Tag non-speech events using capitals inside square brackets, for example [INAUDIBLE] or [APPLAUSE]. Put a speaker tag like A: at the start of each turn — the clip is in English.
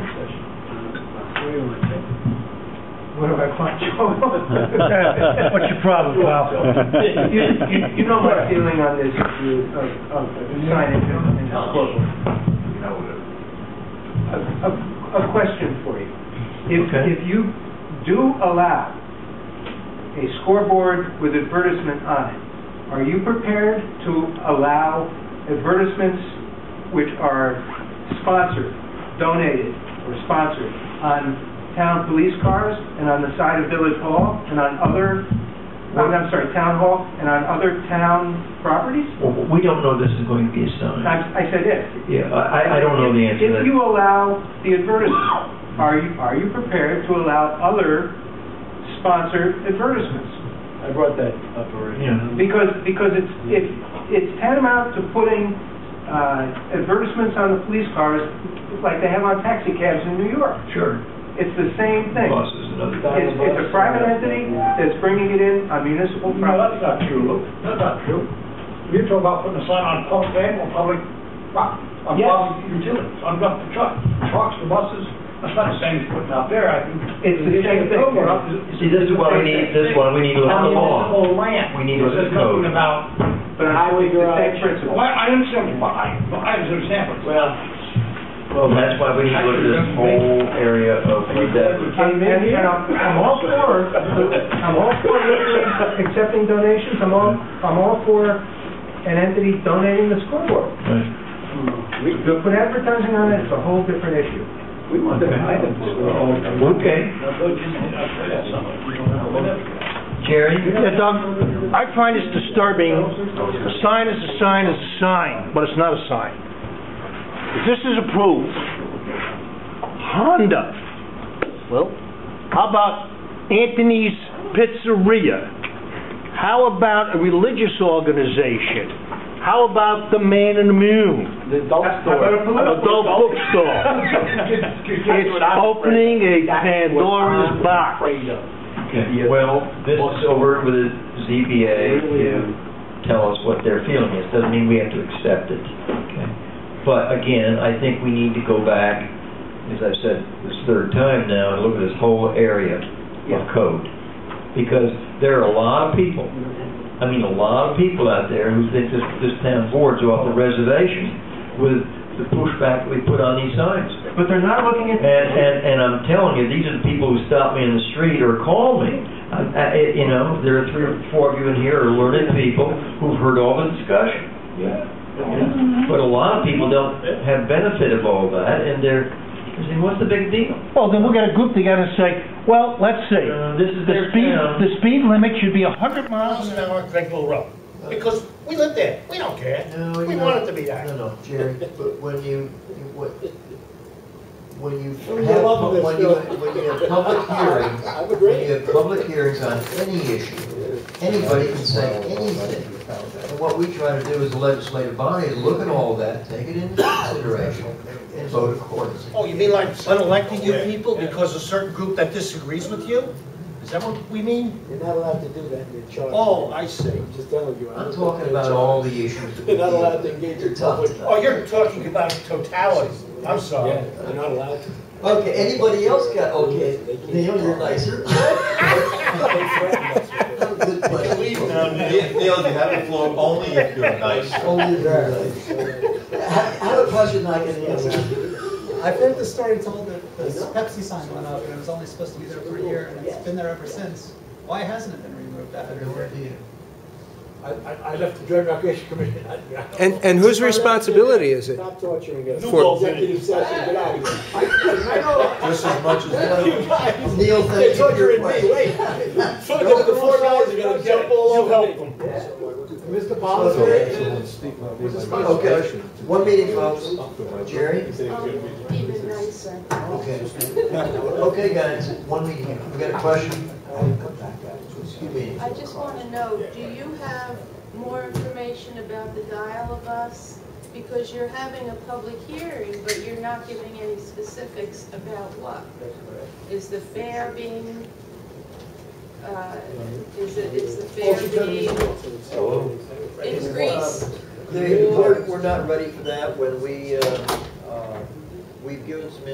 A: where do I find Joe?
B: What's your problem, Bob?
A: You, you- you know my feeling on this issue of, of signage and and disclosure. A, a, a question for you. If,
B: Okay.
A: if you do allow a scoreboard with advertisement on it, are you prepared to allow advertisements which are sponsored, donated, or sponsored on town police cars and on the side of Village Hall and on other, well, I'm sorry, Town Hall and on other town properties?
B: Well, We don't know this is going to be a sign.
A: I I said if.
B: Yeah, I, I don't know the answer
A: If
B: to that.
A: you allow the advertisement, are you, are you prepared to allow other sponsored advertisements?
C: I brought that up already.
B: Yeah.
A: Because, because it's, it it's tantamount to putting uh, advertisements on the police cars like they have on taxi cabs in New York.
B: Sure,
A: It's the same thing.
B: bus is another thing.
A: It's, it's a private entity that's bringing it in on municipal
D: No,
A: property.
D: that's not true, Lou. That's not true. You're talking about putting a sign on public land or public, prop- on
A: Yes.
D: public utilities, on the truck, trucks, the buses. That's not the same as putting out there, I think.
A: It's the same thing.
D: Over up is-
B: See, this is why we need, this is why we need to look
D: On
B: at the law.
D: municipal land.
B: We need to look at
D: There's
B: the code.
D: nothing about
A: But I think it's the same principle.
D: Well, I understand, what I, I understand, but, well,
B: Well, that's why we need to look at this whole area of that.
A: And, and, you know, I'm all for, I'm all for [LAUGHS] listening, accepting donations, I'm all, I'm all for an entity donating the scoreboard. To put advertising on it, it's a whole different issue.
C: We want them items.
B: Okay, Jerry?
E: Yeah, Doug, I find this disturbing. A sign is a sign is a sign, but it's not a sign. If this is approved, Honda, well, how about Anthony's Pizzeria? How about a religious organization? How about the Man in the Moon?
C: The adult store.
E: Adult
F: [LAUGHS]
E: bookstore?
C: [LAUGHS]
E: It's opening a Pandora's box.
B: Okay, well, this is over with the ZBA to tell us what their feeling is, doesn't mean we have to accept it. Okay. But again, I think we need to go back, as I've said this third time now, and look at this whole area of code. Because there are a lot of people, I mean, a lot of people out there who think this, this town board's off the reservation with the pushback we put on these signs.
A: But they're not looking at,
B: And, and, and I'm telling you, these are the people who stop me in the street or call me. I, I, it- you know, there are three or four of you in here are learned people who've heard all the discussion. Yeah. But a lot of people don't have benefit of all that, and they're, they're saying, what's the big deal?
E: Well, then we'll get a group together and say, well, let's see,
B: Uh, this is
E: the
B: their
E: speed,
B: town.
E: the speed limit should be 100 miles an hour on Glencoe Road.
G: Because we live there, we don't care.
F: No,
G: We
F: you
G: want
F: know-
G: it to be that.
F: No, no, Jerry, but when you, you- what, when you
G: Oh, you
F: have,
G: love
F: pu-
G: this
F: when you,
G: show.
F: when you have
G: [LAUGHS]
F: public hearings,
G: I'm
F: when you
G: agreeing.
F: have public hearings on any issue, anybody can say anything. And what we try to do as a legislative body is look at all that, take it into consideration, and vote accordingly.
G: Oh, you mean like unelecting you people because a certain group that disagrees with you? Is that what we mean?
H: You're not allowed to do that in your charter.
G: Oh, I see.
H: I'm just telling you. I
F: I'm
H: looked at
F: talking
H: your
F: about
H: charter.
F: all the issues that we
H: You're not
F: deal
H: allowed
F: with.
H: to engage
F: They're
H: in
F: tough
H: public-
F: enough.
G: Oh, you're talking about totality. I'm sorry.
H: Yeah, you're not allowed to.
F: Okay, anybody else got, okay, Neil, you're
G: [LAUGHS]
F: nicer.
H: They threatened us with it.
F: Good
C: [LAUGHS]
F: question.
C: Neil, you have the floor only if you're nice.
F: Only if you're nice. I I have a question I can answer.
I: I've heard the story told that the Pepsi sign went up and it was only supposed to be there for a year and it's been there ever since. Why hasn't it been removed after?
C: I, I left the Joint Recreation Commission.
J: And, and whose responsibility is it?
H: Stop torturing us.
J: For-
H: Executive session, get out of here.
C: Just as much
G: [LAUGHS]
C: as.
F: Neil, thank you for your question.
H: wait. So the, the four guys are gonna jump all over me. Mr. Policy.
F: Okay, one meeting, folks. Jerry?
K: Even nicer.
F: Okay. Okay, guys, one meeting. We got a question? Excuse me.
K: I just want to know, do you have more information about the dial of us? Because you're having a public hearing, but you're not giving any specifics about what. Is the fair being, uh, is it, is the fair being increased?
F: The- We're, we're not ready for that when we, uh, uh, we've given some